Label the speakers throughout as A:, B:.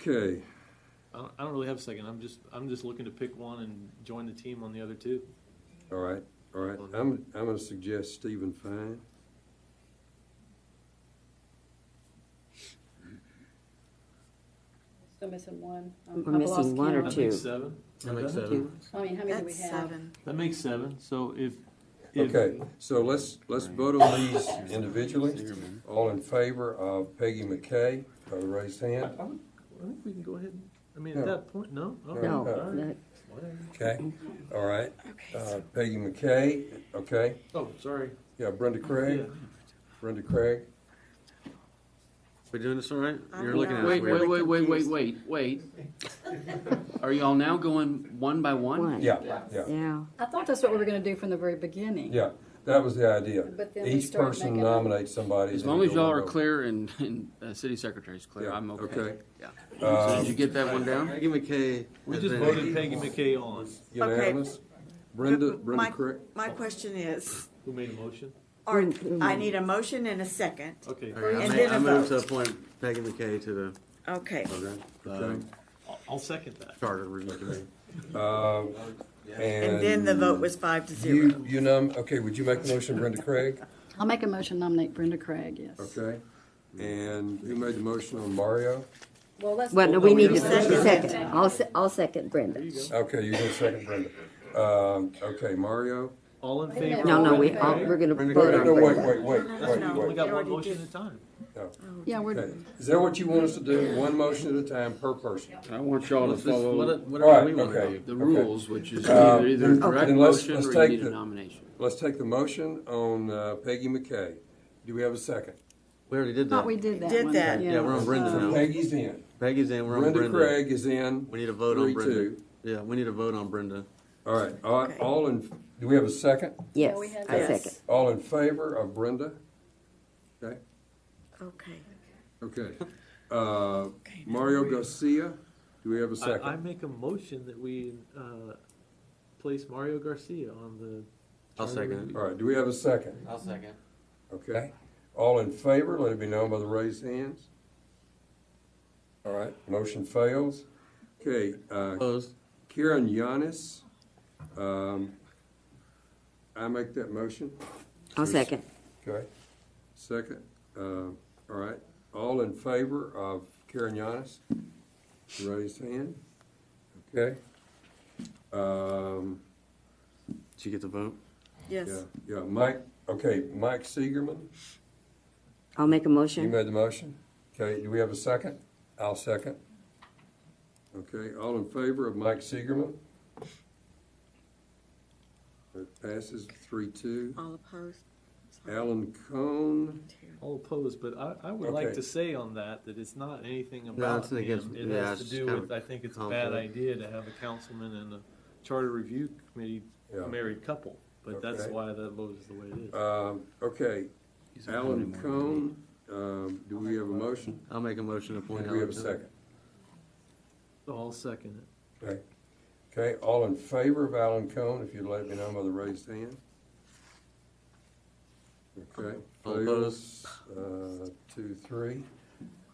A: Okay,
B: I don't, I don't really have a second. I'm just, I'm just looking to pick one and join the team on the other two.
A: all right, all right. I'm, I'm gonna suggest Stephen Fine.
C: Still missing one. Um,
D: We're
C: I've
D: missing
C: lost
D: one or
B: That
C: count.
D: two.
B: makes seven.
E: I like
B: Doesn't it?
E: seven.
C: I mean, how many do we
F: That's
C: have?
F: seven.
B: That makes seven. So if, if
A: Okay, so let's, let's vote on these individually. All in favor of Peggy McKay, by the raised
B: I, I
A: hand.
B: would, I think we can go ahead. and- I mean,
A: No.
B: at that point, no. Oh,
A: No,
B: all right.
D: No,
B: Whatever.
A: Okay, all right. Uh, Peggy McKay, okay.
B: Oh, sorry.
A: Yeah, Brenda Craig,
B: Yeah.
A: Brenda Craig.
E: We doing this all right?
F: I'm
E: You're looking
F: not.
E: at us
G: Wait,
E: weird.
G: wait, wait, wait, wait,
F: confused.
G: wait, wait. Are y'all now going one by one?
D: one.
A: Yeah, yeah,
D: Yeah,
C: I thought that's what we were gonna do from the very beginning.
A: yeah. That was the idea.
C: But then we
A: Each
C: start
A: person
C: making-
A: nominates somebody.
G: As
A: then
G: long
A: we
G: as
A: go
G: y'all
A: on
G: are
A: vote.
G: clear and, and uh, city secretary's clear,
A: Yeah,
G: I'm okay.
A: okay.
G: Yeah. So
A: Uh,
G: Did you get that one down?
E: Maggie McKay.
B: We
E: has
B: just
E: been-
B: voted Peggy McKay on.
A: Unanimous? Brenda, Brenda Oh.
F: My-
A: Craig?
F: My question is,
B: Who made a motion?
F: are,
D: Mm,
F: I need a motion and a second.
B: Okay.
E: All right, I
F: And
E: ma-
F: then
E: I
F: a
E: move to
F: vote.
E: appoint Peggy McKay to
A: Okay,
F: Okay.
E: Um,
A: okay.
B: I'll, I'll second that.
E: the Charter Review Committee.
A: Uh,
F: And then the vote was five to zero.
A: You, you nom, okay, would you make the motion, Brenda Craig?
C: I'll make a motion to nominate Brenda Craig, yes.
A: Okay. And who made the motion on Mario?
C: Well, let's.
D: well, no, we need
F: you
D: to
F: second.
D: second. I'll, se- I'll second Brenda.
A: Okay, you can second Brenda. Um, okay, Mario?
B: All in
C: Wait a minute.
B: favor?
D: No, no,
B: of
D: we,
B: Peggy
D: all-
B: Craig?
D: we're gonna
E: Brenda
D: vote
E: Craig.
D: on
A: No, wait,
D: Brenda.
A: wait, wait, wait,
B: We only
A: wait.
B: got one
F: Already
B: motion at
F: did.
B: a time.
A: No.
C: Yeah, we're,
A: Okay. Is that what you want us to do? One motion at a time per person?
G: I want y'all to
E: Let's just-
G: follow
E: what-
A: All
E: Whatever
A: right,
E: we want
A: okay.
E: to do.
G: the rules, which is
A: Uh,
G: either either a
A: okay.
G: direct
A: Then let's-
G: motion
A: let's
G: or you
A: take
G: need
A: the-
G: a nomination.
A: Let's take the motion on uh, Peggy McKay. Do we have a second?
E: We already did
C: thought
E: that.
C: we did that
F: Did
C: one.
F: that.
E: Yeah, we're on Brenda
C: Um,
E: now.
A: Peggy's in.
E: Peggy's in, we're on
A: Brenda
E: Brenda.
A: Craig is in.
E: We need a vote on
A: Three,
E: Brenda.
A: two.
E: Yeah, we need a vote on Brenda.
A: All right, all,
F: Okay.
A: all in, do we have a second?
D: Yes,
C: we had
D: I
F: that.
D: second.
A: All in favor of Brenda? Okay,
F: Okay.
A: okay. Uh, Mario Garcia, do we have a
B: I, I
A: second?
B: make a motion that we, uh, place Mario Garcia on the.
E: I'll
B: Charter
E: second it.
B: Review.
A: All right, do we have a second?
E: I'll second.
A: Okay. All in favor, let it be known by the raised hands. All right, motion fails. Okay, uh,
E: Opposed?
A: Karen Yanis, um, I make that motion.
D: I'll second.
A: Okay. Second, uh, all right, all in favor of Karen Yanis? Raise hand. Okay. Um,
E: Did you get the vote?
A: yeah,
F: Yes.
A: yeah, Mike, okay, Mike Seigerman,
D: I'll make a
A: you
D: motion.
A: made the motion. Okay, do we have a second? I'll second. Okay, all in favor of Mike Seigerman? It passes three two.
F: All opposed? Sorry.
A: Alan Cohn.
B: All opposed, but I, I would like
A: Okay.
B: to say on that, that it's not anything about
E: it's against-
B: him. It
E: yeah,
B: has to
E: it's
B: do
E: kind
B: with,
E: of
B: I think it's a bad
E: conflict.
B: idea to have a councilman and a charter review committee
A: Yeah.
B: married couple. But that's
A: Okay.
B: why that vote is the way it is.
A: Um, Okay,
E: not
A: Alan Cohn, um, do we have a motion?
E: I'll make a motion to appoint.
A: And do we have a
E: Alan Cohn.
A: second?
B: I'll second it.
A: Okay, okay, all in favor of Alan Cohn, if you'd let me know by the raised hand? Okay.
E: All opposed?
A: fails, uh, Two, three.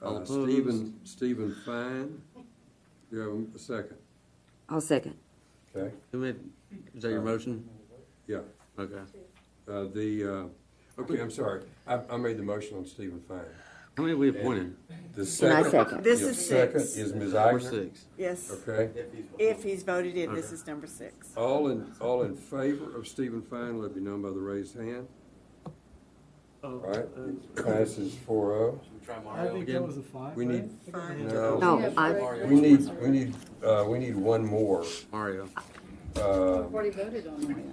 E: All
A: Uh, Stephen, Stephen Fine, do you have a second?
D: I'll second.
A: Okay,
E: Who made- Is that your motion?
A: yeah,
E: Okay.
A: uh, the, uh, okay, I'm sorry, I, I made the motion on Stephen Fine.
E: How many have we appointed?
A: The
D: And I
A: second.
D: second.
F: This
A: yeah,
F: is
A: Second
F: six.
A: is Ms.
E: We're
A: Agner,
E: six.
F: Yes.
A: okay?
F: If he's voted in, this is number six.
A: All in, all in favor of Stephen Fine, let it be known by the raised hand.
B: Oh,
A: All right,
B: uh,
A: passes four oh.
B: I think that
E: again?
B: was a five,
A: We
B: right?
A: need-
B: I think we
F: Five.
B: need-
A: No.
D: No, I,
C: Mario.
A: We need, we need, uh, we need one more.
E: Mario.
A: Uh,
C: We've already voted on Mario.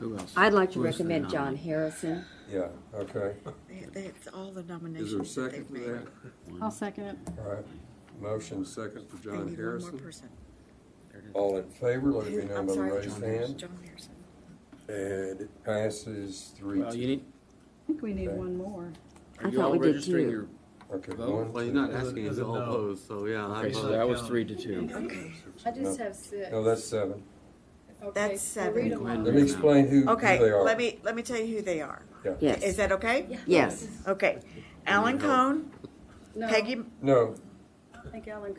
E: Who else?
D: I'd like to
E: Who's the
D: recommend
E: nominee?
D: John Harrison.
A: yeah, okay,
F: They- they- It's all the
A: is there a
F: nominations that
A: second
F: they've
A: for
F: made.
A: that?
C: I'll second it.
A: All right, motion second for
F: They
A: John
F: need one more
A: Harrison.
F: person.
A: All in favor, let it be
F: Who-
A: known
F: I'm
A: by the
F: sorry,
A: raised
F: John Harrison.
A: hand.
F: John Harrison.
A: And it passes three
G: Well, you
A: two.
G: need,
C: I think we need
A: Okay.
C: one more.
G: are
D: I
G: you
D: thought
G: all
D: we did
G: registering
D: two.
G: your,
A: Okay,
G: Vote?
A: one,
E: Well, he's
A: two,
E: not asking, he's all opposed, so yeah. I
G: okay, so
E: vote.
G: that was three to two.
F: Okay.
A: six,
C: I just
A: no.
C: have six.
A: No, that's seven.
F: That's seven.
C: Read them all.
A: Let me explain who, who
F: Okay,
A: they are.
F: let me, let me tell you who they are. Is
D: Yes,
F: that okay?
D: yes.
F: Okay. Alan Cohn,
C: No.
F: Peggy,
A: No,
C: I think Alan